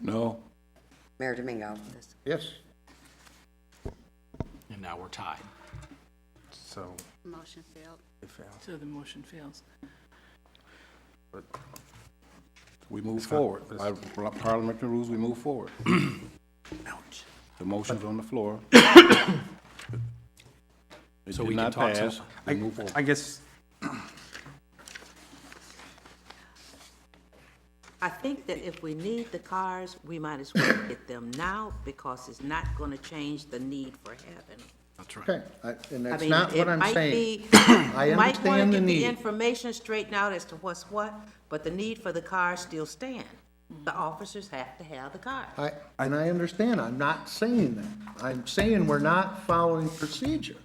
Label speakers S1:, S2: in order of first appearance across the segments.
S1: No.
S2: Mayor Domingo.
S3: Yes.
S4: And now we're tied.
S3: So
S5: Motion failed.
S3: it failed.
S6: So the motion fails.
S1: We move
S3: not-
S1: forward. By parliamentary rules, we move forward.
S2: Ouch.
S1: The motion's on the floor. It
S4: So
S1: did
S4: we can
S1: not
S4: talk some-
S1: pass. We move forward.
S3: I guess,
S7: I think that if we need the cars, we might as well get them now because it's not going to change the need for having them.
S4: That's right.
S8: Okay, I- and
S7: I
S8: that's
S7: mean,
S8: not
S7: it
S8: what I'm
S7: might
S8: saying.
S7: be-
S8: I
S7: you Might want
S8: understand the
S7: to get the
S8: need.
S7: information straightened out as to what's what, but the need for the cars still stand. The officers have to have the cars.
S8: I, and I understand, I'm not saying that. I'm saying we're not following procedure.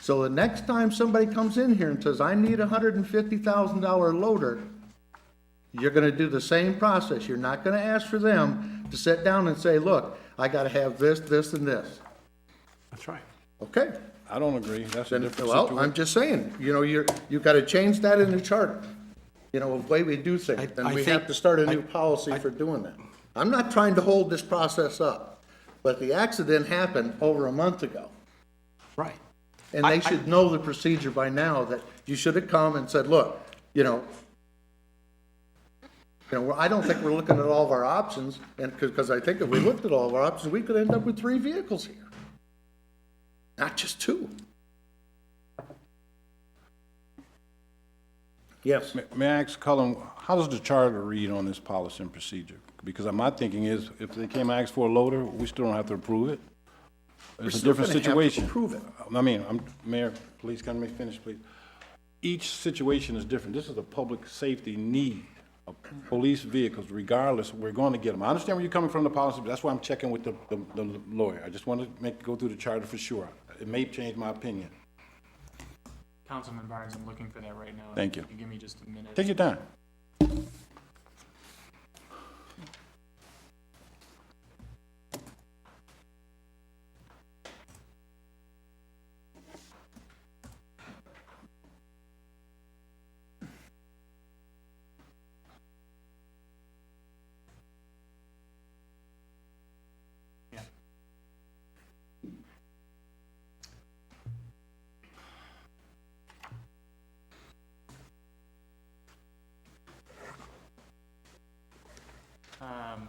S8: So the next time somebody comes in here and says, I need a hundred and fifty thousand dollar loader, you're gonna do the same process. You're not gonna ask for them to sit down and say, look, I gotta have this, this, and this.
S4: That's right.
S8: Okay?
S1: I don't agree. That's a
S8: Then,
S1: different
S8: well,
S1: situation.
S8: I'm just saying, you know, you're, you gotta change that in the charter. You know, the way we do things,
S4: I-
S8: and
S4: I
S8: we
S4: think-
S8: have to start a
S4: I-
S8: new policy for doing that. I'm not trying to hold this process up, but the accident happened over a month ago.
S4: Right.
S8: And
S4: I- I-
S8: they should know the procedure by now, that you should have come and said, look, you know, you know, well, I don't think we're looking at all of our options, and, because I think if we looked at all of our options, we could end up with three vehicles here. Not just two. Yes.
S1: May- May I ask Cullen, how does the charter read on this policy and procedure? Because my thinking is, if they came and asked for a loader, we still don't have to approve it. It's a
S8: still
S1: different
S8: gonna have to
S1: situation.
S8: approve it.
S1: I mean, I'm, Mayor, please can me finish, please. Each situation is different. This is a public safety need of police vehicles, regardless, we're going to get them. I understand where you're coming from, the policy, but that's why I'm checking with the, the the lawyer. I just want to make, go through the charter for sure. It may change my opinion.
S9: Councilman Barnes, I'm looking for that right now.
S1: Thank you.
S9: If Give me just a minute.
S1: Take your time.
S9: Um,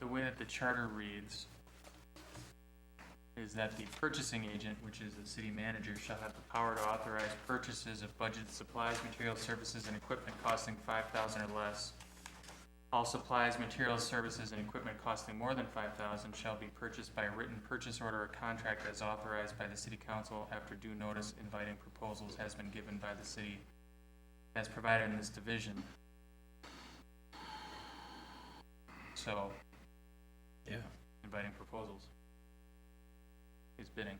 S9: The way that the charter reads is that the purchasing agent, which is the city manager, shall have the power to authorize purchases of budgeted supplies, materials, services, and equipment costing five thousand or less. All supplies, materials, services, and equipment costing more than five thousand shall be purchased by a written purchase order or contract as authorized by the city council after due notice inviting proposals has been given by the city as provided in this division. So,
S4: Yeah.
S9: inviting proposals is bidding.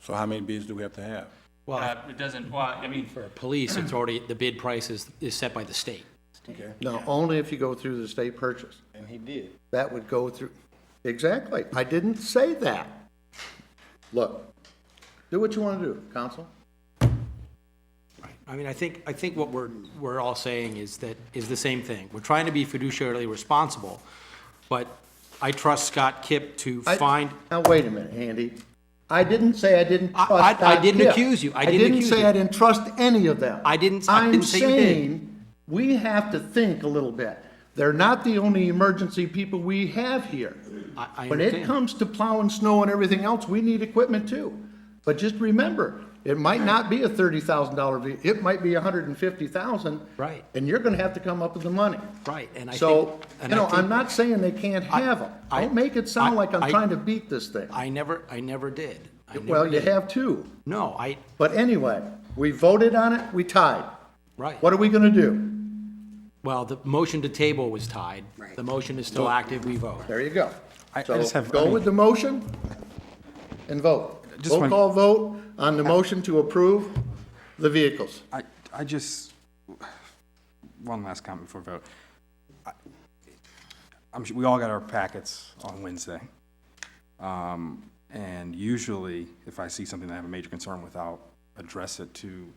S1: So how many bids do we have to have?
S4: Well,
S9: Uh, it doesn't, well, I mean,
S4: for police, it's already, the bid price is, is set by the state.
S1: Okay.
S8: No, only if you go through the state purchase.
S1: And he did.
S8: That would go through, exactly. I didn't say that. Look, do what you want to do, council.
S4: Right. I mean, I think, I think what we're, we're all saying is that, is the same thing. We're trying to be fiduciarily responsible, but I trust Scott Kipp to
S8: I-
S4: find,
S8: Now, wait a minute, Andy. I didn't say I didn't
S4: I-
S8: trust.
S4: I- I
S8: Doc
S4: didn't
S8: Hill.
S4: accuse you. I didn't accuse
S8: say
S4: you.
S8: I didn't trust any of them.
S4: I didn't- I didn't say you did.
S8: I'm saying, we have to think a little bit. They're not the only emergency people we have here.
S4: I, I
S8: When it
S4: understand.
S8: comes to plowing snow and everything else, we need equipment too. But just remember, it might not be a thirty thousand dollar vehicle, it might be a hundred and fifty thousand.
S4: Right.
S8: And you're gonna have to come up with the money.
S4: Right, and I
S8: So,
S4: think-
S8: you
S4: and I
S8: know,
S4: think-
S8: I'm not saying they can't
S4: I-
S8: have them.
S4: I-
S8: Don't make it sound
S4: I-
S8: like I'm
S4: I-
S8: trying to beat this thing.
S4: I never, I never did. I never
S8: Well, you
S4: did.
S8: have two.
S4: No, I,
S8: But anyway, we voted on it, we tied.
S4: right.
S8: What are we gonna do?
S4: Well, the motion to table was tied.
S2: Right.
S4: The motion is still active, we vote.
S8: There you go.
S3: I- I
S8: So
S3: just have- I
S8: Go
S3: mean-
S8: with the motion and vote.
S3: Just
S8: Roll
S3: one-
S8: call vote on the motion to approve the vehicles.
S3: I, I just, one last comment before vote. I- I'm, su- we all got our packets on Wednesday. Um, and usually, if I see something that I have a major concern with, I'll address it to